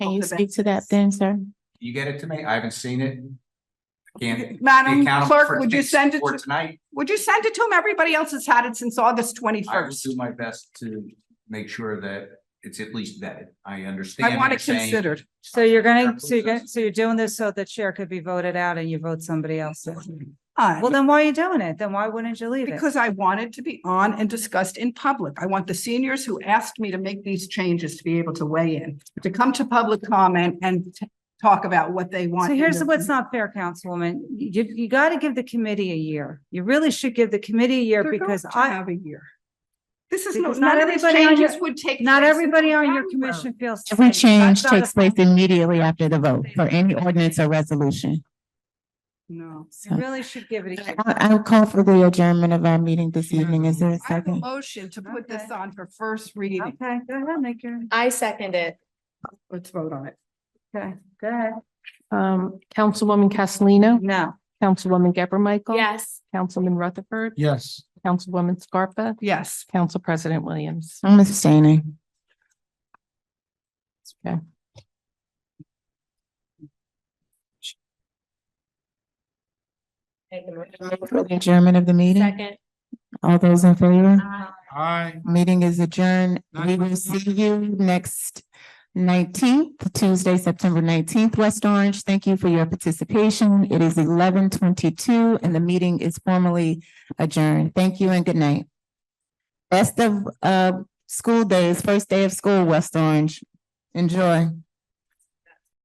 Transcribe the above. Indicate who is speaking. Speaker 1: Can
Speaker 2: Off
Speaker 1: you
Speaker 2: the
Speaker 1: speak to that
Speaker 2: benches.
Speaker 1: then, sir?
Speaker 3: You get it to me? I haven't seen it. Can't.
Speaker 2: Madam
Speaker 3: be accountable for
Speaker 2: Clerk, would you
Speaker 3: today's-
Speaker 2: send it
Speaker 3: For
Speaker 2: to,
Speaker 3: tonight,
Speaker 2: would you send it to him? Everybody else has had it since August
Speaker 3: I will
Speaker 2: twenty-first.
Speaker 3: do my best to make sure that it's at least vetted. I understand.
Speaker 2: I want
Speaker 3: you're
Speaker 2: it
Speaker 3: saying-
Speaker 2: considered.
Speaker 4: So you're gonna,
Speaker 3: Chair
Speaker 4: so you're gonna,
Speaker 3: Bluetooth.
Speaker 4: so you're doing this so the chair could be voted out and you vote somebody else in.
Speaker 2: Uh,
Speaker 4: Well, then why are you doing it? Then why wouldn't you leave it?
Speaker 2: because I wanted to be on and discussed in public. I want the seniors who asked me to make these changes to be able to weigh in, to come to public comment and t- talk about what they want.
Speaker 4: So
Speaker 2: in
Speaker 4: here's
Speaker 2: their-
Speaker 4: what's not fair, Councilwoman. You, you gotta give the committee a year. You really should give the committee a year
Speaker 2: They're going
Speaker 4: because
Speaker 2: to
Speaker 4: I,
Speaker 2: Have a year. This is, no-
Speaker 4: Because not
Speaker 2: none of these
Speaker 4: everybody on your-
Speaker 2: changes would take.
Speaker 4: not
Speaker 2: place
Speaker 4: everybody on your
Speaker 2: until
Speaker 4: commission feels.
Speaker 1: Every
Speaker 4: safe. That's
Speaker 1: change
Speaker 4: not a
Speaker 1: takes place
Speaker 4: problem.
Speaker 1: immediately after the vote for any ordinance or resolution.
Speaker 2: No.
Speaker 4: You really should give it a year.
Speaker 1: I- I'll call for the adjournment of our meeting this evening. Is there a
Speaker 2: I have a
Speaker 1: second?
Speaker 2: motion to put this
Speaker 4: Okay.
Speaker 2: on for first reading.
Speaker 4: Okay, go ahead, make your,
Speaker 5: I second it.
Speaker 2: Let's vote on it.
Speaker 4: okay, go ahead.
Speaker 6: Um, Councilwoman Castellino,
Speaker 4: No,
Speaker 6: Councilwoman Gabor Michael.
Speaker 5: Yes.
Speaker 6: Councilman Rutherford,
Speaker 3: Yes.
Speaker 6: Councilwoman Scarpa,
Speaker 2: Yes.
Speaker 6: Council President Williams.
Speaker 1: I'm abstaining.
Speaker 6: Okay.
Speaker 5: Take the motion.
Speaker 1: For the Adjournment of the meeting.
Speaker 5: Second.
Speaker 1: All those in favor?
Speaker 3: Hi.
Speaker 1: Meeting is adjourned. We will see you next nineteenth, Tuesday, September nineteenth, West Orange. Thank you for your participation. It is eleven twenty-two and the meeting is formally adjourned. Thank you and good night. Best of, uh, school days, first day of school, West Orange. Enjoy.